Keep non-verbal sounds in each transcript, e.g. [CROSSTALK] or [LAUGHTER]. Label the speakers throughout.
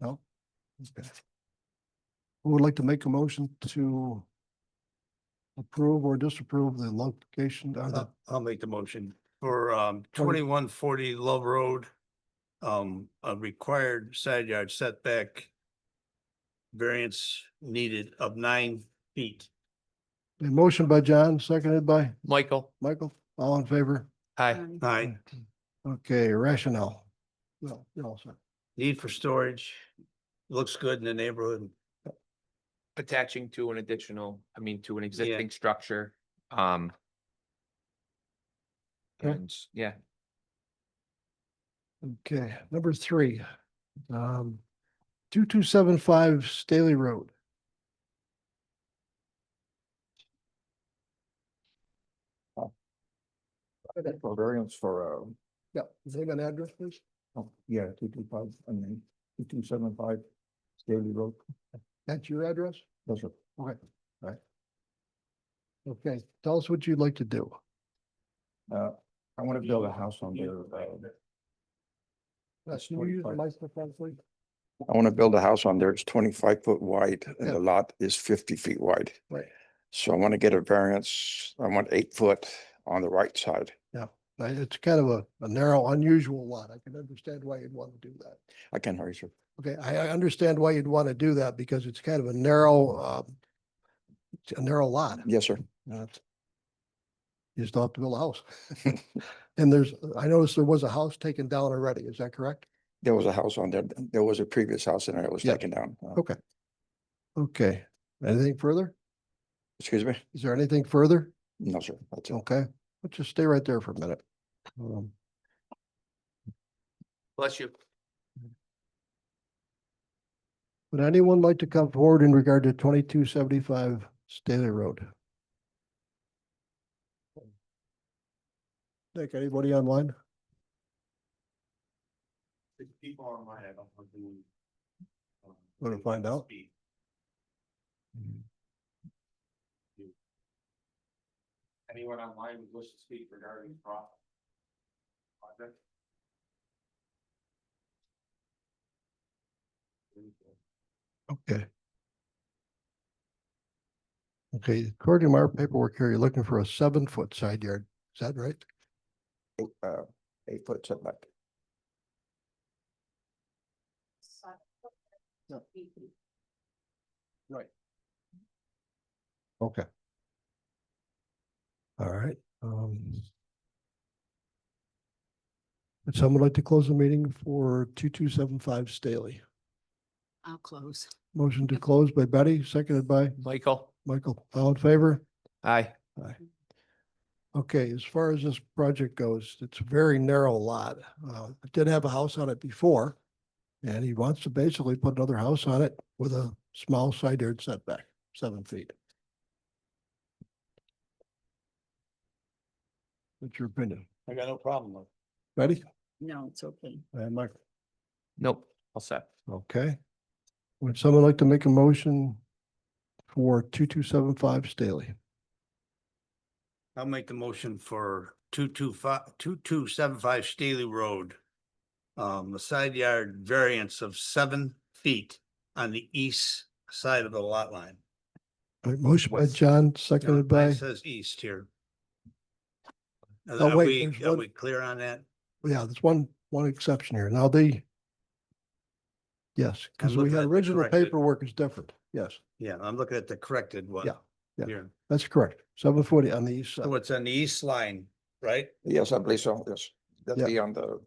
Speaker 1: No? Okay. Who would like to make a motion to approve or disapprove the location or the,
Speaker 2: I'll- I'll make the motion for um
Speaker 1: Pardon?
Speaker 2: twenty-one forty Love Road. Um, a required side yard setback. Variance needed of nine feet.
Speaker 1: a motion by John, seconded by
Speaker 3: Michael,
Speaker 1: Michael, all in favor?
Speaker 3: hi.
Speaker 2: Nine,
Speaker 1: Okay, rationale. Well, you know, so
Speaker 2: need for storage. Looks good in the neighborhood.
Speaker 3: Attaching to an additional, I mean, to an existing structure, um.
Speaker 1: Okay.
Speaker 3: And, yeah,
Speaker 1: Okay, number three. Um, two, two, seven, five Staley Road.
Speaker 4: That's for variance for, uh,
Speaker 1: Yeah, is that an address, please?
Speaker 4: oh, yeah, two two five, I mean, two two seven five Staley Road,
Speaker 1: That's your address?
Speaker 4: that's a
Speaker 1: Okay, all right. Okay, tell us what you'd like to do.
Speaker 4: Uh, I want to build a house on there. uh,
Speaker 1: Uh,
Speaker 4: That's
Speaker 1: Can you use the
Speaker 4: 45.
Speaker 1: microphone, please?
Speaker 4: I want to build a house on there. It's twenty-five foot wide and
Speaker 1: Yeah.
Speaker 4: the lot is fifty feet wide.
Speaker 1: Right.
Speaker 4: So I want to get a variance. I want eight foot on the right side.
Speaker 1: Uh, It's kind of a, a narrow, unusual lot. I can understand why you'd want to do that.
Speaker 4: I can't hear you, sir.
Speaker 1: Okay, I, I understand why you'd want to do that because it's kind of a narrow, uh, it's a narrow lot.
Speaker 4: Yes, sir.
Speaker 1: you know, it's- You just don't have to build a house. [LAUGHS] And there's, I noticed there was a house taken down already. Is that correct?
Speaker 4: There was a house on there. There was a previous house in there. It was
Speaker 1: Yeah.
Speaker 4: taken down. Uh,
Speaker 1: Okay. Okay, anything further?
Speaker 4: Excuse me?
Speaker 1: Is there anything further?
Speaker 4: No, sir. That's it.
Speaker 1: Okay, let's just stay right there for a minute. Um,
Speaker 3: bless you.
Speaker 1: Would anyone like to come forward in regard to twenty-two seventy-five Staley Road? Nick, anybody online?
Speaker 2: People are my, I don't want to.
Speaker 1: Wanna find out?
Speaker 2: Anyone online who wishes to speak regarding the project?
Speaker 1: Okay. Okay, according to our paperwork here, you're looking for a seven-foot side yard. Is that right?
Speaker 4: Eight, uh, eight foot setback.
Speaker 1: Okay. All right, um. Would someone like to close the meeting for two-two-seven-five Staley?
Speaker 5: I'll close.
Speaker 1: Motion to close by Betty, seconded by
Speaker 3: Michael,
Speaker 1: Michael. All in favor?
Speaker 3: hi.
Speaker 1: Okay, as far as this project goes, it's a very narrow lot. Uh, it did have a house on it before. And he wants to basically put another house on it with a small side yard setback, seven feet. What's your opinion?
Speaker 2: I got no problem with it.
Speaker 1: Ready?
Speaker 5: No, it's okay.
Speaker 1: And Mike,
Speaker 3: Nope, all set.
Speaker 1: okay. Would someone like to make a motion for two, two, seven, five Staley?
Speaker 2: I'll make the motion for two two five, two two seven five Staley Road. Um, a side yard variance of seven feet on the east side of the lot line.
Speaker 1: All right, Motion by
Speaker 3: What's-
Speaker 1: John,
Speaker 2: Now,
Speaker 1: seconded
Speaker 2: mine
Speaker 1: by,
Speaker 2: Says east here. Are
Speaker 1: Oh,
Speaker 2: are
Speaker 1: wait,
Speaker 2: we,
Speaker 1: there's
Speaker 2: are
Speaker 1: one-
Speaker 2: we clear on that?
Speaker 1: yeah, there's one, one exception here. Now the yes, because we
Speaker 2: looking
Speaker 1: had
Speaker 2: at the
Speaker 1: original
Speaker 2: corrected-
Speaker 1: paperwork is different. Yes,
Speaker 2: Yeah, I'm looking at the corrected one.
Speaker 1: Yeah, yeah.
Speaker 2: Here.
Speaker 1: that's correct. Seven forty on the east side.
Speaker 2: So it's on the east line, right?
Speaker 4: Yes, I believe so. Yes. That'd
Speaker 1: Yeah.
Speaker 4: be on the,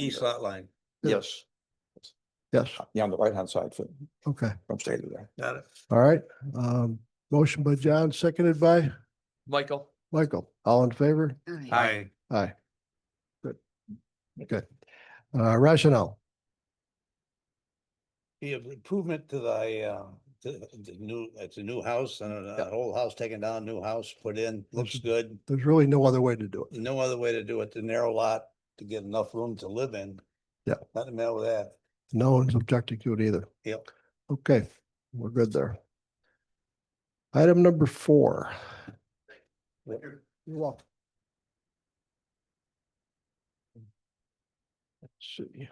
Speaker 2: East lot line.
Speaker 1: Yeah.
Speaker 4: yes,
Speaker 1: Yes,
Speaker 4: yeah, on the right hand side from
Speaker 1: okay,
Speaker 4: from Staley there.
Speaker 2: Got it?
Speaker 1: all right. Um, motion by John, seconded by
Speaker 3: Michael,
Speaker 1: Michael. All in favor?
Speaker 5: All right.
Speaker 2: Aye.
Speaker 1: Aye. Good. Good. Uh, rationale.
Speaker 2: Be of improvement to the, uh, to the new, it's a new house and a-
Speaker 1: Yeah.
Speaker 2: an old house taken down, new house put in, looks
Speaker 1: Mhm.
Speaker 2: good.
Speaker 1: There's really no other way to do it.
Speaker 2: no other way to do it, the narrow lot to get enough room to live in.
Speaker 1: Yeah.
Speaker 2: Nothing matter with that.
Speaker 1: No one's objecting to it either.
Speaker 2: Yep.
Speaker 1: Okay, we're good there. Item number four. You're welcome. Let's see.